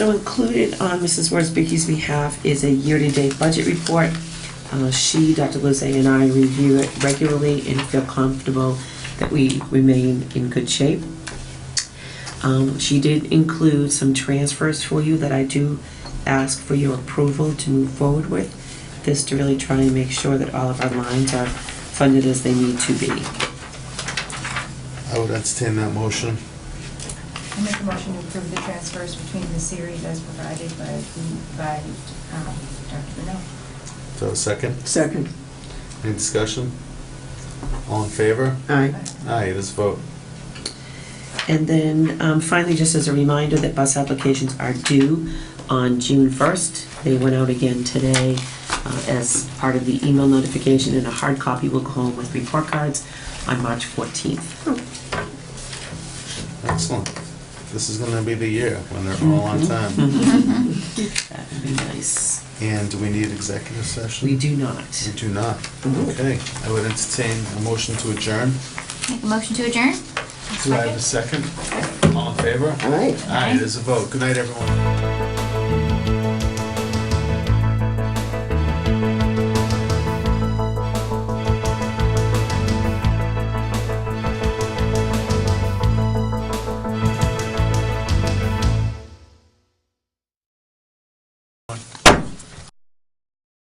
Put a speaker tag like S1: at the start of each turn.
S1: So included on Mrs. Worsbicky's behalf is a year-to-date budget report. Uh, She, Dr. Lozay, and I review it regularly and feel comfortable that we remain in good shape. Um, She did include some transfers for you that I do ask for your approval to move forward with. This to really try and make sure that all of our lines are funded as they need to be.
S2: I would entertain that motion.
S3: I make a motion to approve the transfers between the series as provided by, the- by um, Dr. Brunel.
S2: Do I have a second?
S4: Second.
S2: Any discussion? All in favor?
S4: Aye.
S2: Aye, it is a vote.
S1: And then um, finally, just as a reminder that bus applications are due on June 1st. They went out again today uh, as part of the email notification, and a hard copy will go home with report cards on March 14th.
S2: Excellent. This is gonna be the year when they're all on time.
S1: That would be nice.
S2: And do we need executive session?
S1: We do not.
S2: We do not. Okay, I would entertain a motion to adjourn.
S5: Make a motion to adjourn?
S2: Do I have a second? All in favor?
S4: Aye.
S2: Aye, it is a vote. Good night, everyone.